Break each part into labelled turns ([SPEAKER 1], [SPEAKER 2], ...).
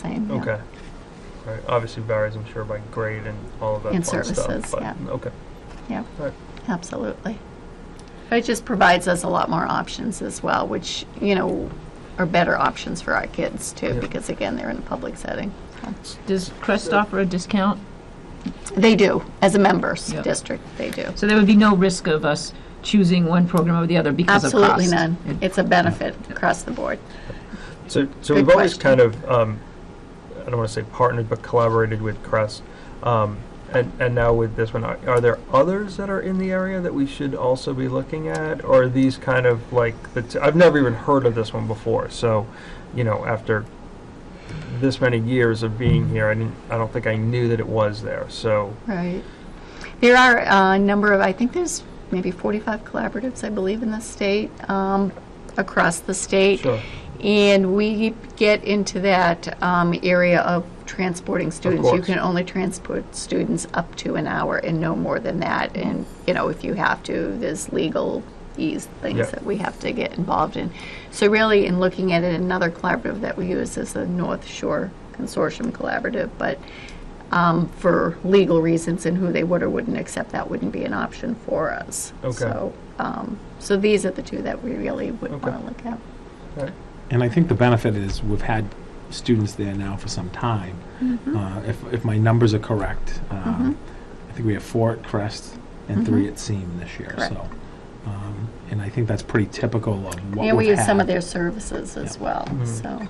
[SPEAKER 1] same. yeah.
[SPEAKER 2] Okay. All right. Obviously varies, I'm sure, by grade and all of that
[SPEAKER 1] And
[SPEAKER 2] fun
[SPEAKER 1] services,
[SPEAKER 2] stuff. But
[SPEAKER 1] yeah.
[SPEAKER 2] okay.
[SPEAKER 1] Yep.
[SPEAKER 2] Right.
[SPEAKER 1] Absolutely. But it just provides us a lot more options as well, which, you know, are better options for our kids too,
[SPEAKER 2] Yeah.
[SPEAKER 1] because again, they're in a public setting.
[SPEAKER 3] Does Crest offer a discount?
[SPEAKER 1] They do, as a members
[SPEAKER 3] Yeah.
[SPEAKER 1] district, they do.
[SPEAKER 3] So there would be no risk of us choosing one program over the other because of cost?
[SPEAKER 1] Absolutely none. It's a benefit across the board.
[SPEAKER 2] So, so
[SPEAKER 1] Good
[SPEAKER 2] we've always
[SPEAKER 1] question.
[SPEAKER 2] kind of, um, I don't want to say partnered, but collaborated with Crest. Um, and, and now with this one, are, are there others that are in the area that we should also be looking at? Or are these kind of like, the t- I've never even heard of this one before. So, you know, after this many years of being here, I, didn't, I don't think I knew that it was there. So,
[SPEAKER 1] Right. There are uh, a number of, I think there's maybe 45 collaboratives, I believe, in the state, um, across the state.
[SPEAKER 2] Sure.
[SPEAKER 1] And we get into that um, area of transporting students. You
[SPEAKER 2] course.
[SPEAKER 1] can only transport students up to an hour and no more than that. And, you know, if you have to, there's legal ease things
[SPEAKER 2] Yeah.
[SPEAKER 1] that we have to get involved in. So really, in looking at it, another collaborative that we use is the North Shore Consortium Collaborative, but um, for legal reasons and who they would or wouldn't accept, that wouldn't be an option for us.
[SPEAKER 2] Okay.
[SPEAKER 1] So, um, so these are the two that we really would
[SPEAKER 2] Okay.
[SPEAKER 1] want to look at.
[SPEAKER 2] all right.
[SPEAKER 4] And I think the benefit is we've had students there now for some time.
[SPEAKER 1] Mm-hmm.
[SPEAKER 4] Uh, if, if my numbers are correct, um, I think we have four at Crest and three at Seam this year.
[SPEAKER 1] Mm-hmm. Correct.
[SPEAKER 4] So, um, and I think that's pretty typical of what
[SPEAKER 1] And we
[SPEAKER 4] we've
[SPEAKER 1] use some of
[SPEAKER 4] had. Mm-hmm.
[SPEAKER 1] their services as well, so,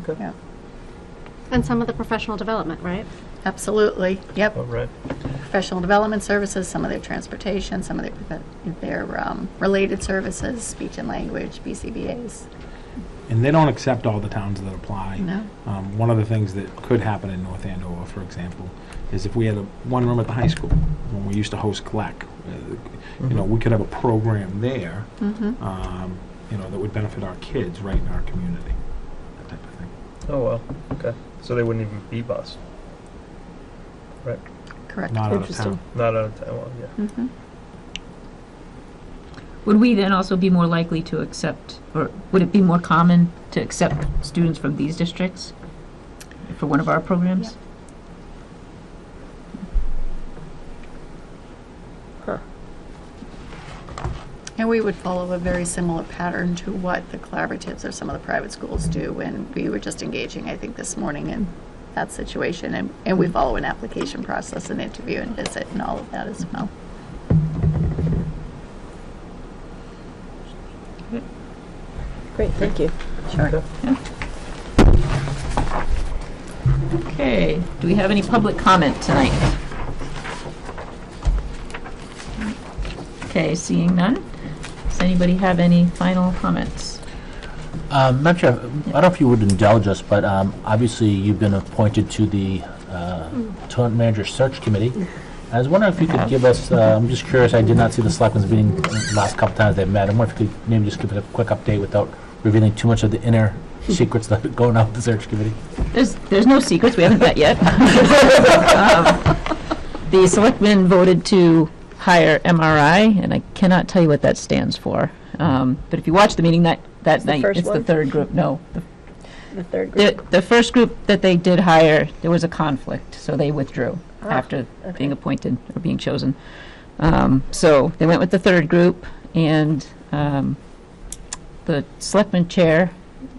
[SPEAKER 2] Okay.
[SPEAKER 1] yeah,
[SPEAKER 5] And some of the professional development, right?
[SPEAKER 1] absolutely, yep.
[SPEAKER 2] All right.
[SPEAKER 1] Professional development services, some of their transportation, some of their, profe- their um, related services, speech and language, BCBA's.
[SPEAKER 4] And they don't accept all the towns that apply.
[SPEAKER 1] No.
[SPEAKER 4] Um, one of the things that could happen in North Andover, for example, is if we had a, one room at the high school, when we used to host CLEC, uh, you
[SPEAKER 1] Mm-hmm.
[SPEAKER 4] know, we could have a program there, um, you know, that would benefit our kids right in our community, that type of thing.
[SPEAKER 2] Oh, well. Okay. So they wouldn't even be bused. Right.
[SPEAKER 1] Correct.
[SPEAKER 4] Not out of
[SPEAKER 3] Interesting.
[SPEAKER 4] town.
[SPEAKER 2] Not out of town. Well, yeah.
[SPEAKER 1] Mhm.
[SPEAKER 3] Would we then also be more likely to accept, or would it be more common to accept students from these districts for one of our programs?
[SPEAKER 1] And we would follow a very similar pattern to what the collaboratives or some of the private schools do, and we were just engaging, I think, this morning in that situation, and, and
[SPEAKER 4] Mm-hmm.
[SPEAKER 1] we follow an application process and interview and visit and all of that as well.
[SPEAKER 6] Great, thank you.
[SPEAKER 1] Sure.
[SPEAKER 3] Okay, do we have any public comment tonight? Okay, seeing none. Does anybody have any final comments?
[SPEAKER 7] Um, Madam Chair, I don't know if you would indulge us, but um, obviously you've been appointed to the uh, Talent Manager Search Committee. I was wondering if you could give us, uh, I'm just curious, I did not see the Selectmen's meeting the last couple times they've met. I'm wondering if you could maybe just give us a quick update without revealing too much of the inner secrets that are going on with the Search Committee.
[SPEAKER 3] There's, there's no secrets, we haven't met yet. Um, The selectmen voted to hire MRI, and I cannot tell you what that stands for. Um, But if you watch the meeting that, that
[SPEAKER 6] the
[SPEAKER 3] night,
[SPEAKER 6] first
[SPEAKER 3] it's the
[SPEAKER 6] one?
[SPEAKER 3] third group, no. the-
[SPEAKER 6] The third group.
[SPEAKER 3] The, the first group that they did hire, there was a conflict, so they withdrew after being appointed or being chosen. Um, So they went with the third group, and um, the selectman chair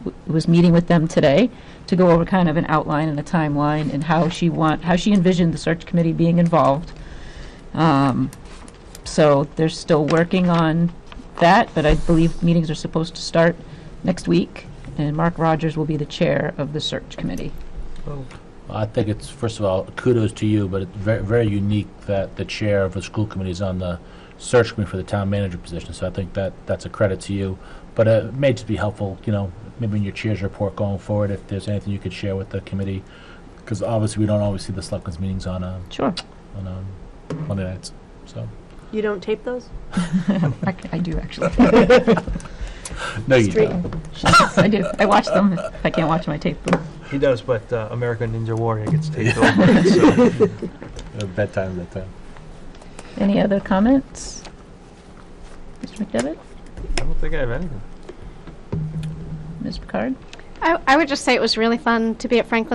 [SPEAKER 3] w- was meeting with them today to go over kind of an outline and a timeline and how she want, how she envisioned the search committee being involved. Um, So they're still working on that, but I believe meetings are supposed to start next week, and Mark Rogers will be the chair of the search committee.
[SPEAKER 2] Oh.
[SPEAKER 7] I think it's, first of all, kudos to you, but it's very, very unique that the chair of a school committee is on the search committee for the town manager position, so I think that, that's a credit to you. But uh, it may just be helpful, you know, maybe in your chair's report going forward, if there's anything you could share with the committee, because obviously we don't always see the selectmen's meetings on, uh,
[SPEAKER 3] Sure.
[SPEAKER 7] on um, Monday nights, so.
[SPEAKER 6] You don't tape those?
[SPEAKER 3] I I do, actually.
[SPEAKER 7] No, you
[SPEAKER 6] Street.
[SPEAKER 7] don't.
[SPEAKER 3] I do. I watch them. If I can't watch my tape. then-
[SPEAKER 2] He does, but uh, American Ninja Warrior gets taken over. so.
[SPEAKER 7] Uh, Bedtime, bedtime.
[SPEAKER 3] Any other comments? Mr. McDevitt?
[SPEAKER 2] I don't think I have anything.
[SPEAKER 3] Ms. Picard?
[SPEAKER 5] I, I would just say it was really fun to be at Franklin